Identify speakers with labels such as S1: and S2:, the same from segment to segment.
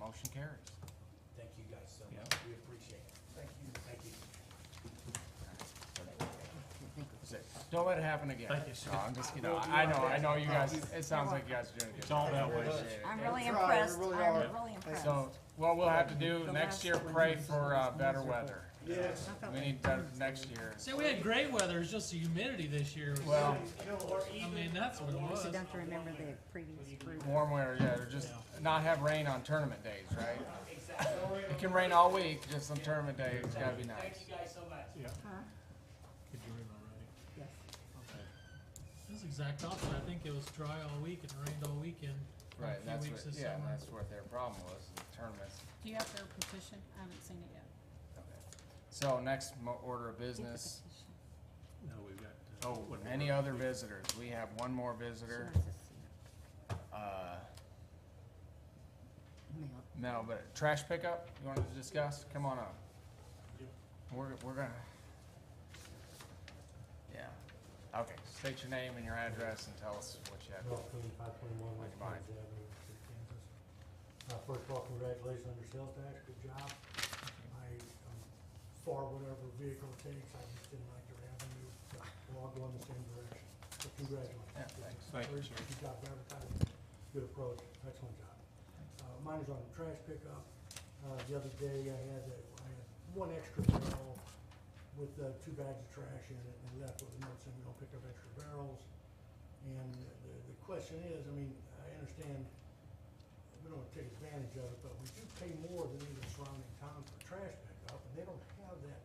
S1: Motion carries.
S2: Thank you guys so much. We
S1: Yeah.
S2: appreciate it. Thank you. Thank you.
S1: Don't let it happen again.
S3: Thank you, sir.
S1: No, I'm just kidding. I know, I know you guys, it sounds like you guys are doing a good.
S3: It's all that way.
S4: I'm
S1: Yeah.
S4: really
S5: Try, we
S4: impressed,
S5: really
S4: I'm
S5: are.
S4: really impressed.
S1: So, what we'll have to do next year, pray for, uh, better weather.
S5: Yes.
S1: We need better next year.
S6: Say we had great weather, it's just the humidity this year. was-
S1: Well,
S2: Or
S6: I
S2: even,
S6: mean, that's what it was.
S4: So don't you remember the previous group?
S1: warm weather, yeah, or just not have rain on tournament days, right? It can rain all week, just on tournament days, it's gotta be nice.
S2: thank you guys so much.
S3: Could you read my writing?
S4: Yes.
S6: This is exact opposite. I think it was dry all week and rained all weekend. for a
S1: Right,
S6: few
S1: and that's
S6: weeks
S1: what,
S6: this
S1: yeah, and
S6: summer.
S1: that's what their problem was, the tournaments.
S7: Do you have their petition? I haven't seen it yet.
S1: So next mo- order of business,
S3: No, we've got. uh,
S1: oh,
S3: what-
S1: any other visitors? We have one more visitor, uh, Mel, but trash pickup, you wanna discuss? Come on up. We're, we're gonna. Yeah, okay, state your name and your address and tell us what you have.
S8: Ralph Cooney, five twenty-one West
S1: Like mine.
S8: Plains Avenue, Street, Kansas. Uh, first of all, congratulations on your sales tax, good job. I, um, for whatever vehicle it takes, I just didn't like your avenue, we're all going the same direction, so congratulations.
S1: Yeah, thanks.
S3: Thank you, sir.
S8: Good job advertising, good approach, excellent job. Uh, mine is on the trash pickup, uh, the other day I had, a- I had one extra barrel with, uh, two bags of trash in it and left with a note saying we don't pick up extra barrels. And the, the question is, I mean, I understand we don't take advantage of it, but we do pay more than even surrounding towns for trash pickup, and they don't have that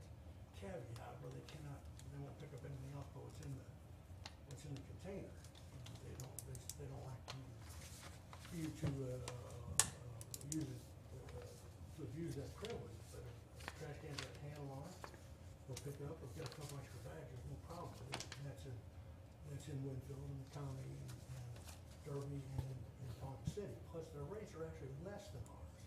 S8: caveat where they cannot, they won't pick up anything else but what's in the, what's in the container. They don't, they, they don't like you, you to, uh, uh, use it, uh, to abuse that privilege, but if a trash can's got a handle on it, they'll pick it up, they'll get a couple extra bags, there's no problem with it, and that's in, that's in Winfield and the county and, and Derby and, and Ponca City, plus their rates are actually less than ours.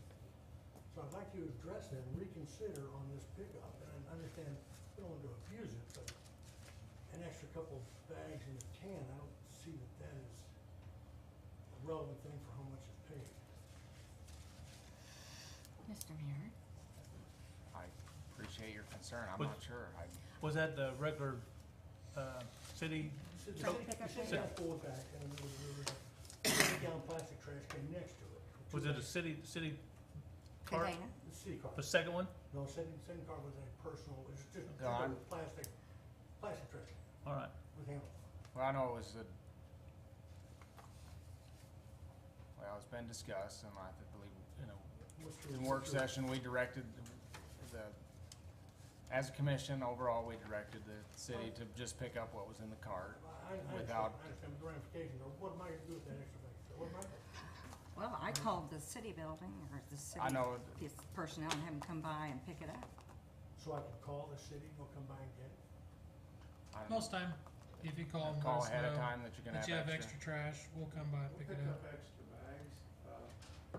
S8: So I'd like you to address that and reconsider on this pickup, and I understand, we don't want to abuse it, but an extra couple bags in the can, I don't see that that is a relevant thing for how much it's paid.
S7: Mr. Mayor?
S1: I appreciate your concern, I'm
S3: But-
S1: not sure, I,
S3: Was that the regular, uh, city?
S8: Sit
S4: Trash
S8: down,
S4: pickup
S8: sit
S3: day?
S8: down, four back, and there was, there was a fifty-gallon plastic trash can next to it. two
S3: Was it a
S8: bags.
S3: city, city cart?
S4: Container,
S8: The city car.
S3: The second one?
S8: No, same, same car with a personal, it's just a
S1: No, I'm-
S8: covered plastic, plastic trash
S3: All right.
S8: with handles.
S1: well, I know it was a. Well, it's been discussed, and I th- believe, you know,
S8: What's the-
S1: in work
S8: what's your-
S1: session, we directed the, as a commission, overall, we directed the city to just pick up what was in the cart.
S8: I, I understand, I
S1: without-
S8: understand the ramifications, or what am I gonna do with that extra bag? So What am I, gonna-
S4: well, I called the city building or the city.
S1: I know it-
S4: This personnel and have them come by and pick it up.
S8: so I can call the city, and they'll come by and get it?
S1: I don't
S6: Most time, if you call
S1: know,
S6: them,
S1: Call
S6: let us
S1: ahead of
S6: know
S1: time that you're gonna
S6: that you
S1: have
S6: have
S1: extra.
S6: extra trash, we'll come by and pick it up.
S9: extra bags, uh,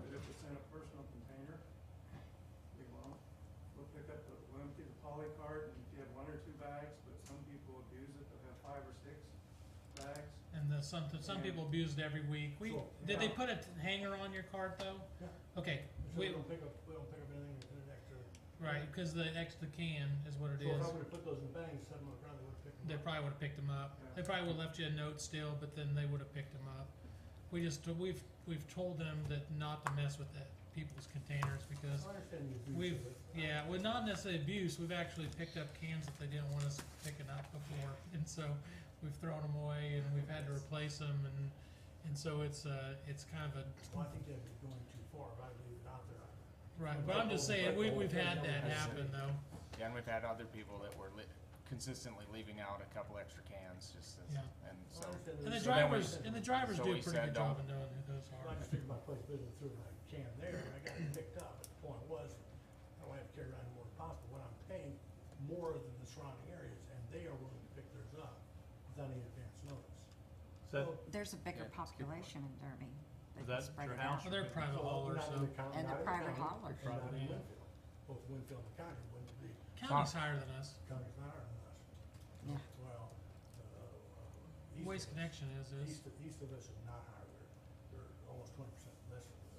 S9: but if it's in a personal container, we won't. We'll pick up, the- we'll empty the poly cart, and if you have one or two bags, but some people abuse it, they'll have five or six bags.
S6: And the, some, some people abused every week. We,
S8: Sure.
S6: did they put a hanger on your card though?
S8: Yeah.
S6: Okay,
S8: So we
S6: we,
S8: don't pick up, we don't pick up anything that's in an extra.
S6: right, cause the extra can is what it
S8: So
S6: is.
S8: if I would've put those in bags, set them on the ground, they would've picked them
S6: They
S8: up.
S6: probably would've picked them up. They probably would've left you a note still, but then they would've picked them up. We just, we've, we've told them that not to mess with that, people's containers because
S8: I understand the abuse
S6: We've,
S8: of it.
S6: yeah, well, not necessarily abuse, we've actually picked up cans that they didn't want us picking up before, and so we've thrown them away and we've had to replace them, and, and so it's, uh, it's kind of
S8: Well, I
S6: a,
S8: think that'd be going too far, if I leave it out there.
S6: right, but I'm just saying, we, we've had that happen though.
S1: Yeah, and we've had other people that were li- consistently leaving out a couple extra cans, just as,
S6: Yeah.
S1: and
S8: I
S1: so.
S8: understand
S6: And the
S8: there's-
S1: So then we-
S6: drivers, and the drivers
S1: so
S6: do
S1: we
S6: a pretty
S1: said um,
S6: good job
S1: don't-
S6: of knowing who those
S8: Well,
S6: are.
S8: I just figured my place business through my can there, and I got it picked up, but the point was, I don't have to carry around more than possible, when I'm paying more than the surrounding areas, and they are willing to pick theirs up without any advance notice.
S3: Is that,
S8: So-
S4: There's a bigger
S1: Yeah, that's a good point.
S4: population in Derby. They can
S3: Is that
S4: spread
S3: your
S4: it out.
S3: house?
S6: Well, they're private
S8: So,
S6: haulers,
S8: not in
S6: so,
S8: the county-
S4: And the
S8: not in
S4: private
S8: county,
S4: hauler.
S8: and not in
S3: Yeah.
S8: Winfield. Both Winfield and county wouldn't be,
S6: county's higher than us,
S8: county's not ours,
S4: Yeah.
S8: unless, well, uh, uh, east
S6: Waste
S8: of us-
S6: Connection is, is,
S8: East of, east of us is not higher, they're, they're almost twenty percent